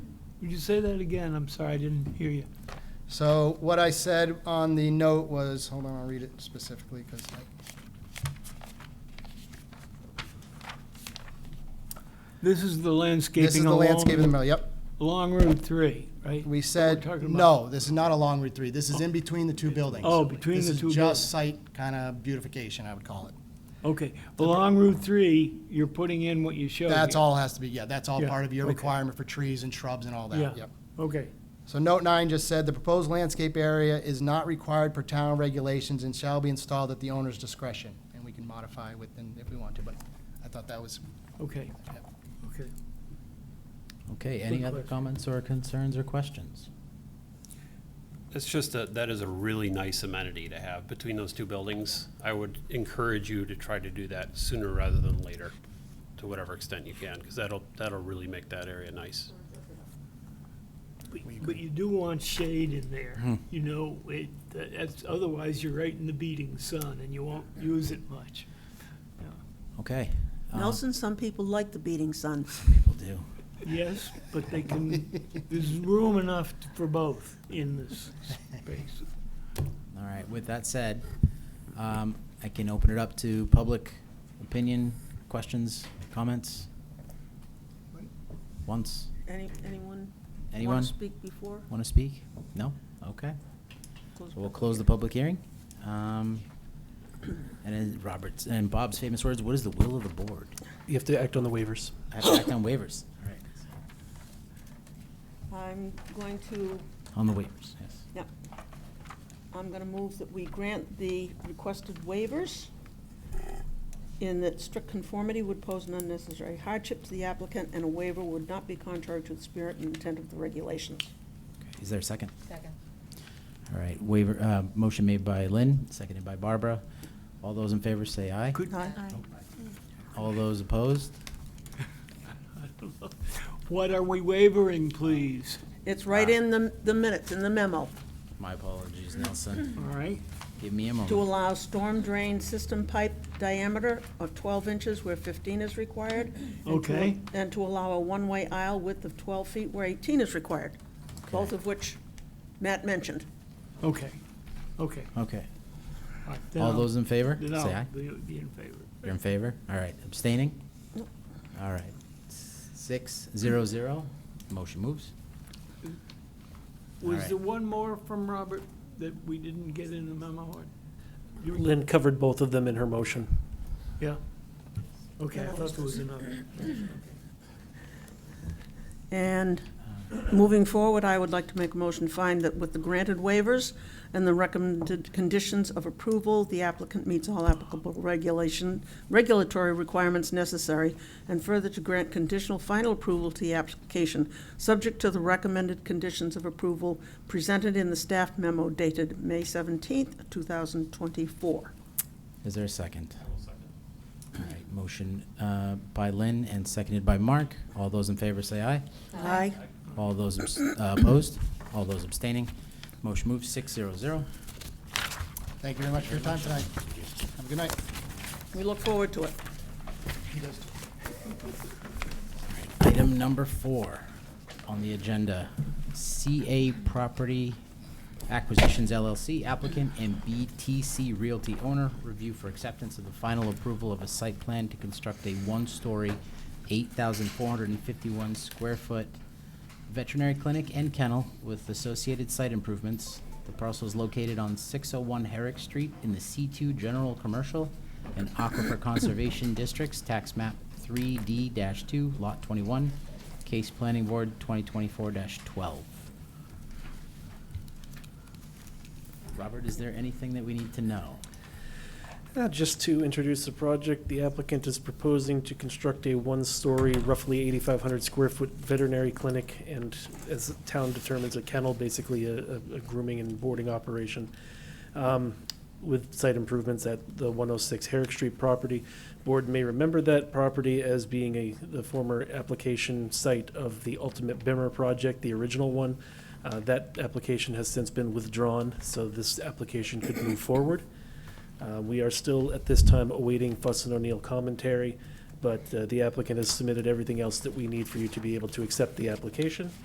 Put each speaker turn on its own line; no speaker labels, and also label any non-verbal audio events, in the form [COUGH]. Would you say that again? I'm sorry, I didn't hear you.
So what I said on the note was, hold on, I'll read it specifically because
This is the
this is
landscaping
the
along,
landscape in the middle. Yep.
along Route 3, right?
We said,
talking about-
no, this is not along Route 3. This is in between the two buildings.
Oh, between the two
This is
buildings.
just site kind of beautification, I would call it.
Okay, along Route 3, you're putting in what you showed here.
That's all has to be, yeah, that's all
Yeah,
part of your
okay.
requirement for trees and shrubs and all
Yeah.
that. Yep.
Okay,
So note nine just said, the proposed landscape area is not required per town regulations and shall be installed at the owner's discretion. And we can modify within, if we want to, but I thought that was,
okay,
yeah.
okay.
Okay,
Good
any other
question.
comments or concerns or questions?
It's just that, that is a really nice amenity to have between those two buildings. I would encourage you to try to do that sooner rather than later, to whatever extent you can, because that'll, that'll really make that area nice.
But you do want shade in there,
Hmm.
you know, it, that's, otherwise you're right in the beating sun and you won't use it much.
Okay. uh,
Nelson, some people like the beating sun.
People do.
Yes, but they
[LAUGHS]
can, there's room enough for both in this space.
All right, with that said, um, I can open it up to public opinion, questions, comments? Once,
Any, anyone?
anyone
Want to speak before?
want to speak? No? Okay.
Close
So we'll
public
close the public hearing. Um, And then Robert's, and Bob's famous words, what is the will of the board?
You have to act on the waivers.
I have to act on waivers. All right.
hearing. I'm going to,
On the waivers, yes.
yeah, I'm going to move that we grant the requested waivers in that strict conformity would pose an unnecessary hardship to the applicant, and a waiver would not be contrary to the spirit and intent of the regulations.
Is there a second?
Second.
All right, waiver, uh, motion made by Lynn, seconded by Barbara. All those in favor say aye.
Could,
Aye.
All those opposed?
what are we wavering, please?
It's right in the, the minutes, in the memo,
My apologies, Nelson.
All right?
Give me a
to
moment.
allow storm drain system pipe diameter of twelve inches where fifteen is required, and to-
Okay.
And to allow a one-way aisle width of 12 feet where 18 is required, both
Okay.
of which Matt mentioned.
Okay, okay.
Okay,
All right, then
all
I'll-
those in favor?
Then
Say
I'll
aye.
be- be in favor.
You're in favor? All right, abstaining?
Nope.
All right, six, zero, zero. Motion moves.
Was
right.
there one more from Robert that we didn't get in the memo? or- you-
Lynn covered both of them in her motion.
Yeah? Okay, I thought there was another.
And moving forward, I would like to make a motion to find that with the granted waivers and the recommended conditions of approval, the applicant meets all applicable regulation, regulatory requirements necessary, and further to grant conditional final approval to the application, subject to the recommended conditions of approval presented in the staff memo dated May 17th, 2024.
Is there a second? All right, motion uh, by Lynn and seconded by Mark. All those in favor say aye.
Aye.
All those abs- uh, opposed? All those abstaining? Motion moves, six, zero, zero.
Thank you very much for your time tonight. Have a good night.
We look forward to it.
Item number four on the agenda, CA Property Acquisitions LLC applicant and BTC Realty owner, review for acceptance of the final approval of a site plan to construct a one-story, 8,451 square foot veterinary clinic and kennel with associated site improvements. The parcel is located on 601 Herrick Street in the C2 General Commercial and Aquifer Conservation Districts, Tax Map 3D-2, Lot 21, Case Planning Board 2024-12. Robert, is there anything that we need to know?
Uh, Just to introduce the project, the applicant is proposing to construct a one-story, roughly 8,500 square foot veterinary clinic, and as the town determines, a kennel, basically a a- a grooming and boarding operation, um, with site improvements at the 106 Herrick Street property. Board may remember that property as being a, the former application site of the Ultimate Bimmer project, the original one. Uh, That application has since been withdrawn, so this application could move forward. Uh, We are still, at this time, awaiting Fuss and O'Neill commentary, but uh, the applicant has submitted everything else that we need for you to be able to accept the application.